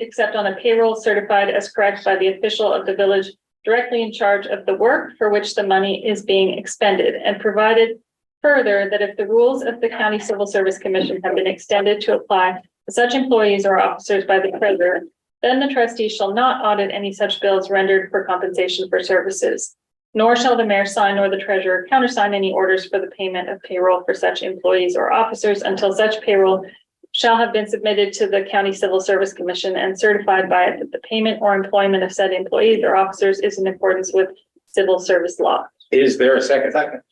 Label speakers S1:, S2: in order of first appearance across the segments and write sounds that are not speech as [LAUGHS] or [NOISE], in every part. S1: except on a payroll certified as correct by the official of the village directly in charge of the work for which the money is being expended, and provided further that if the rules of the County Civil Service Commission have been extended to apply to such employees or officers by the treasurer, then the trustee shall not audit any such bills rendered for compensation for services. Nor shall the mayor sign nor the treasurer countersign any orders for the payment of payroll for such employees or officers until such payroll shall have been submitted to the County Civil Service Commission and certified by it that the payment or employment of said employees or officers is in accordance with civil service law.
S2: Is there a second? Second.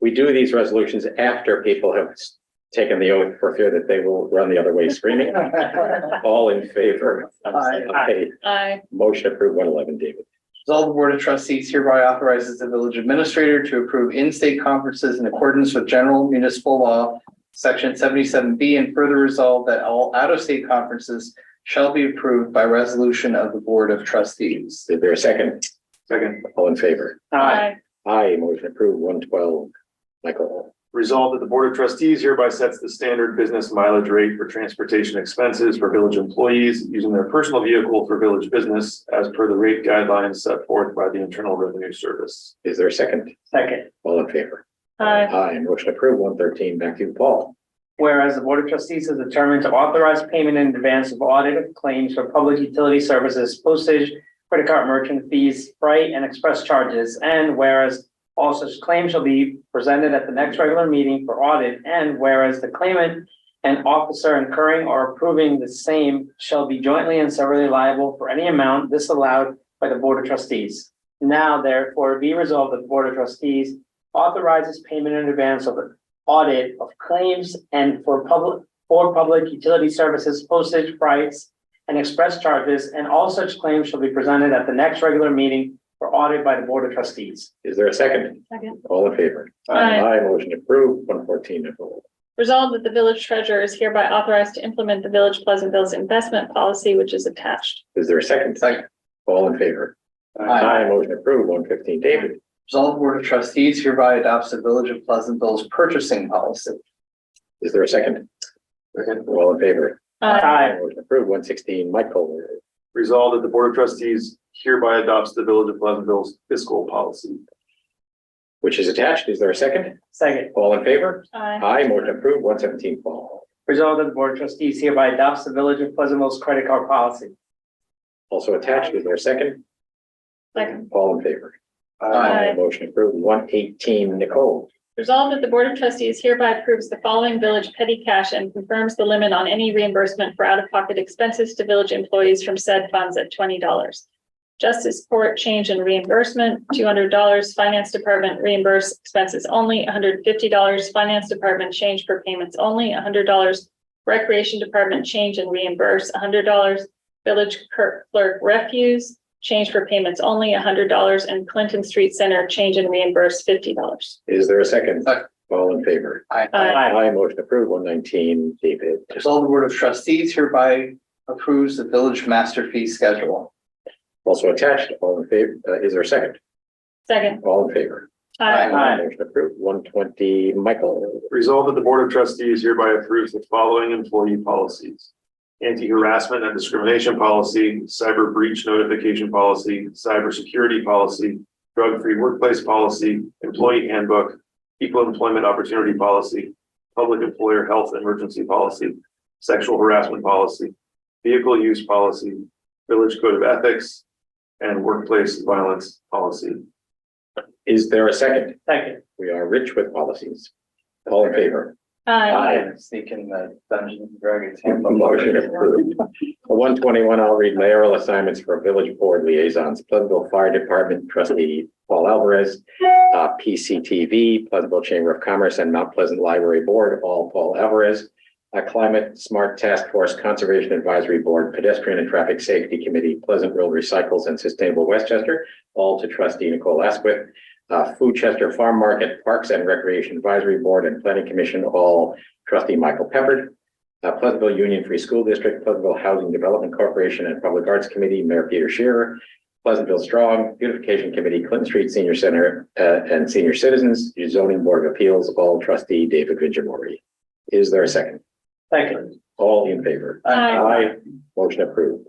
S2: We do these resolutions after people have s- taken the oath for fear that they will run the other way
S3: [LAUGHS]
S2: screaming. All in favor?
S3: Aye.
S2: Aye.
S1: I,
S2: Motion approved one eleven, David.
S3: Resolve the Board of Trustees hereby authorizes the village administrator to approve in-state conferences in accordance with general municipal law, section seventy-seven B, and further resolve that all out-of-state conferences shall be approved by resolution of the Board of Trustees.
S2: Is there a second?
S4: Second.
S2: All in favor?
S1: I,
S2: Aye, motion approved one twelve. Michael,
S4: Resolved that the Board of Trustees hereby sets the standard business mileage rate for transportation expenses for village employees using their personal vehicle for village business as per the rate guidelines set forth by the Internal Revenue Service.
S2: is there a second?
S3: Second.
S2: All in favor?
S1: I,
S2: Aye, motion approved one thirteen, back to you, Paul.
S5: Whereas the Board of Trustees has determined to authorize payment in advance of audit of claims for public utility services, postage, credit card merchant fees, freight, and express charges. And whereas all such claims shall be presented at the next regular meeting for audit. And whereas the claimant and officer incurring or approving the same shall be jointly and severally liable for any amount disallowed by the Board of Trustees. Now therefore be resolved that the Board of Trustees authorizes payment in advance of audit of claims and for public, for public utility services, postage price, and express charges, and all such claims shall be presented at the next regular meeting for audit by the Board of Trustees.
S2: Is there a second?
S1: Second.
S2: All in favor?
S1: Aye.
S2: Aye, motion approved one fourteen, Nicole.
S1: Resolved that the village treasurer is hereby authorized to implement the village Pleasantville's investment policy, which is attached.
S2: Is there a second?
S3: Second.
S2: All in favor?
S3: Aye.
S2: Aye, motion approved, one fifteen, David,
S3: Resolve the Board of Trustees hereby adopts the Village of Pleasantville's purchasing policy.
S2: is there a second?
S4: Second.
S2: All in favor?
S1: I,
S5: Aye.
S2: Motion approved, one sixteen, Michael,
S4: Resolved that the Board of Trustees hereby adopts the Village of Pleasantville's fiscal policy.
S2: which is attached, is there a second?
S5: Second,
S2: All in favor?
S1: I,
S2: Aye, motion approved, one seventeen, Paul,
S5: resolved that the Board of Trustees hereby adopts the Village of Pleasantville's credit card policy.
S2: also attached, is there a second?
S1: Second.
S2: All in favor?
S3: Aye.
S2: Motion approved, one eighteen, Nicole,
S1: Resolved that the Board of Trustees hereby approves the following village petty cash and confirms the limit on any reimbursement for out-of-pocket expenses to village employees from said funds at twenty dollars. Justice Court change in reimbursement, two hundred dollars. Finance Department reimburse expenses only, hundred and fifty dollars. Finance Department change for payments only, hundred dollars. Recreation Department change and reimburse, hundred dollars. Village clerk clerk refuse, change for payments only, hundred dollars. And Clinton Street Center change and reimburse, fifty dollars.
S2: is there a second?
S3: Second.
S2: All in favor?
S5: Oh,
S1: Aye.
S2: Aye, motion approved, one nineteen, David,
S3: Resolve the Board of Trustees hereby approves the Village Master Fee Schedule.
S2: also attached, all in favor, uh, is there a second?
S1: Second.
S2: All in favor?
S1: Aye.
S5: Aye.
S2: Motion approved, one twenty, Michael,
S4: Resolved that the Board of Trustees hereby approves the following employee policies. Anti-harassment and discrimination policy, cyber breach notification policy, cybersecurity policy, drug-free workplace policy, employee handbook, equal employment opportunity policy, public employer health emergency policy, sexual harassment policy, vehicle use policy, village code of ethics, and workplace violence policy.
S2: is there a second?
S5: Second,
S2: We are rich with policies. All in favor?
S1: Aye.
S2: Aye.
S3: Sneak in the Dungeons and Dragons handbook.
S2: Motion approved. One twenty-one, I'll read mayoral assignments for village board liaisons, Pleasantville Fire Department trustee Paul Alvarez, uh, PCTV, Pleasantville Chamber of Commerce and Mount Pleasant Library Board, all Paul Alvarez. Uh, Climate Smart Task Force Conservation Advisory Board, Pedestrian and Traffic Safety Committee, Pleasantville Recycles and Sustainable Westchester, all to trustee Nicole Asquith. Uh, Foodchester Farm Market, Parks and Recreation Advisory Board and Planning Commission, all trustee Michael Pepperd. Uh, Pleasantville Union Free School District, Pleasantville Housing Development Corporation and Public Arts Committee, Mayor Peter Shearer. Pleasantville Strong Beautification Committee, Clinton Street Senior Center, uh, and Senior Citizens, Zoning Board of Appeals, all trustee David Vigilmore. Is there a second?
S5: second,
S2: All in favor?
S1: Aye.
S2: Aye. Motion approved.